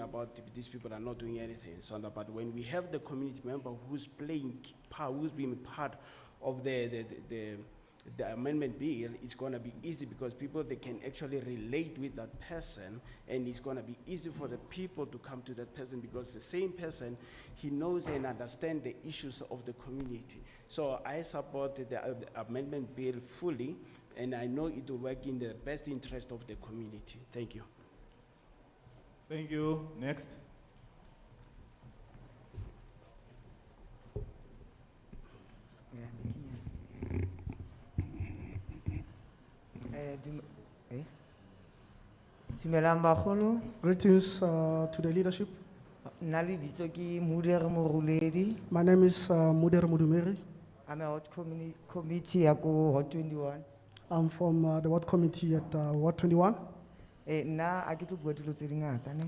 about th- these people are not doing anything, Sanda, but when we have the community member who's playing k- part, who's being part of the, the, the- the, the amendment bill, it's gonna be easy because people, they can actually relate with that person and it's gonna be easy for the people to come to that person because the same person, he knows and understand the issues of the community. So I support the uh, the amendment bill fully and I know it will work in the best interest of the community. Thank you. Thank you. Next. Eh, dum- eh? Dumelang bagolo, Greetings uh, to the leadership. nna lebitso ke Mudere Moruledi. My name is uh, Muder Mudumeri. I'm a hot communi- committee ya ko hot twenty-one. I'm from uh, the Ward Committee at uh, Ward 21. Eh, nna ha ke tlo bua dilo tse di ngata ne.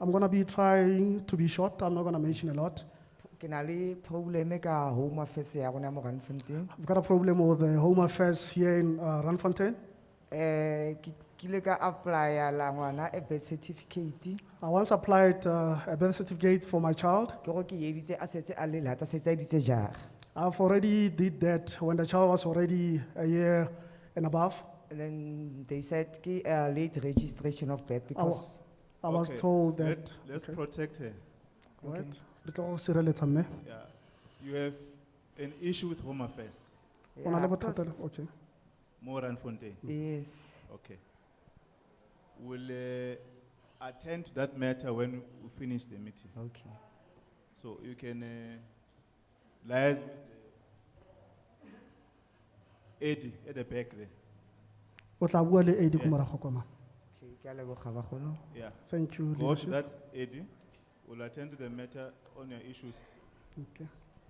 I'm going to be trying to be short. I'm not going to mention a lot. Ke na le probleme ka home affairs ya rona mo Randfontein. I've got a problem with the Home Affairs here in uh, Randfontein. Eh, ke kile ka apply-a la ngwana a birth certificate. I once applied uh, a birth certificate for my child. Ke go ke editse a setse a le lata, setse a editse jara. I've already did that when the child was already a year and above. And then they said ke uh, late registration of birth because. I was Okay. told that. Let, let's okay. protect her. Right. Re tlo go sireletsa mme. Yeah. You have an issue with Home Affairs, O na Yeah, le of course. bothata le- Okay. Moran Fontaine. Yes. Okay. We'll uh, attend to that matter when we finish the meeting. Okay. So you can uh, liaise with the Eddie at the back there. O tla bua le AD ko Yes. morago kwa, ma'am. Okay, ke a leboga bagolo. Yeah. Thank you. Go to leadership. that Eddie. We'll attend to the matter on your issues. Okay.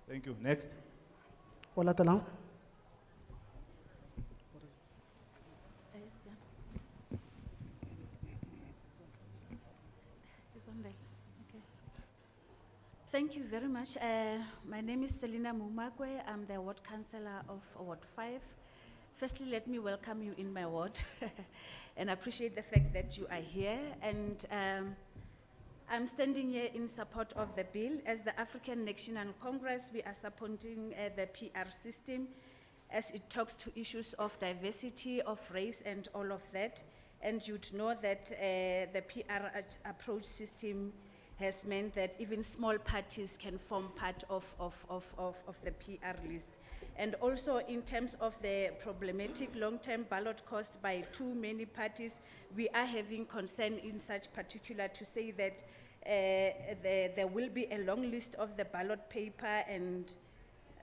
Thank you. Next. O latelang? Yes, yeah. It's on there, okay. Thank you very much. Uh, My name is Selina Mumakwe. I'm the ward councillor of Ward Five. Firstly, let me welcome you in my ward and appreciate the fact that you are here. And um, I'm standing here in support of the bill. As the African National Congress, we are supporting uh, the PR system as it talks to issues of diversity, of race, and all of that. And you'd know that uh, the PR ag- approach system has meant that even small parties can form part of, of, of, of, of the PR list. And also in terms of the problematic long-term ballot cost by too many parties, we are having concern in such particular to say that uh, there, there will be a long list of the ballot paper and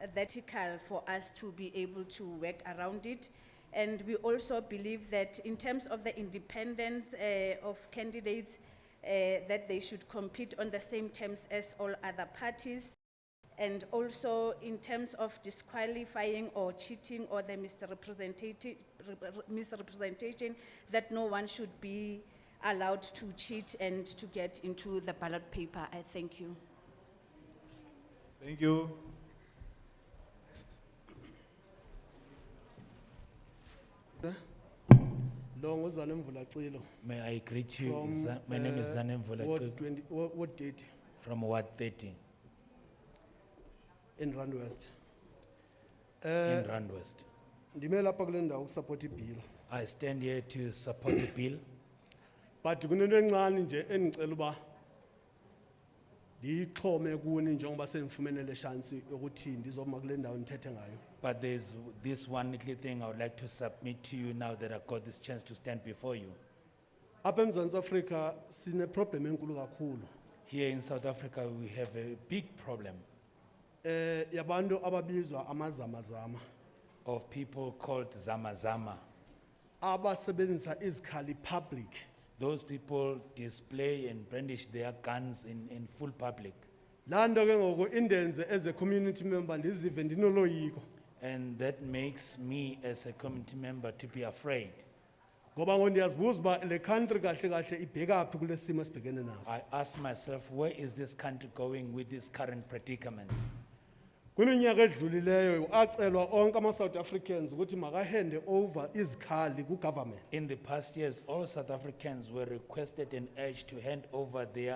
uh, vertical for us to be able to work around it. And we also believe that in terms of the independence eh, of candidates, eh, that they should compete on the same terms as all other parties. And also in terms of disqualifying or cheating or the misrepresentation, misrepresentation, that no one should be allowed to cheat and to get into the ballot paper. I thank you. Thank you. Next. Lo ngozana Mvulacilo May I greet you, from. Za- my name is uh, Zanem Ward Volatu twenty, Wa- Ward thirty from Ward thirty in Rand West. in Eh, Rand West. ndime lapha kule ndawo ukusapota ibill. I stand here to support the bill. But kunento encane nje engicela uba ndiyixhome kuni njengoba sendifumene le chance yokuthi ndizoma kule ndawo ndithethe ngayo. But there's this one little thing I would like to submit to you now that I've got this chance to stand before you. Apha eMzantsi Afrika sine problem enkulu kakhulu. Here in South Africa, we have a big problem Eh, yabantu ababizwa amazamazama of people called Zama Zama. abasebenzisa izikhali public Those people display and brandish their guns in, in full public. laa nto ke ngoku indenze as a community member ndizive ndinoloyiko And that makes me as a community member to be afraid. ngoba ngo ndiyazibuza uba le country kahle kahle ibhekaphi kule simo esibhekene naso I ask myself, where is this country going with this current predicament? kwiminyaka edlulileyo acelwa onke ama-south africans ukuthi makahande over izikhali kugovernment In the past years, all South Africans were requested and urged to hand over their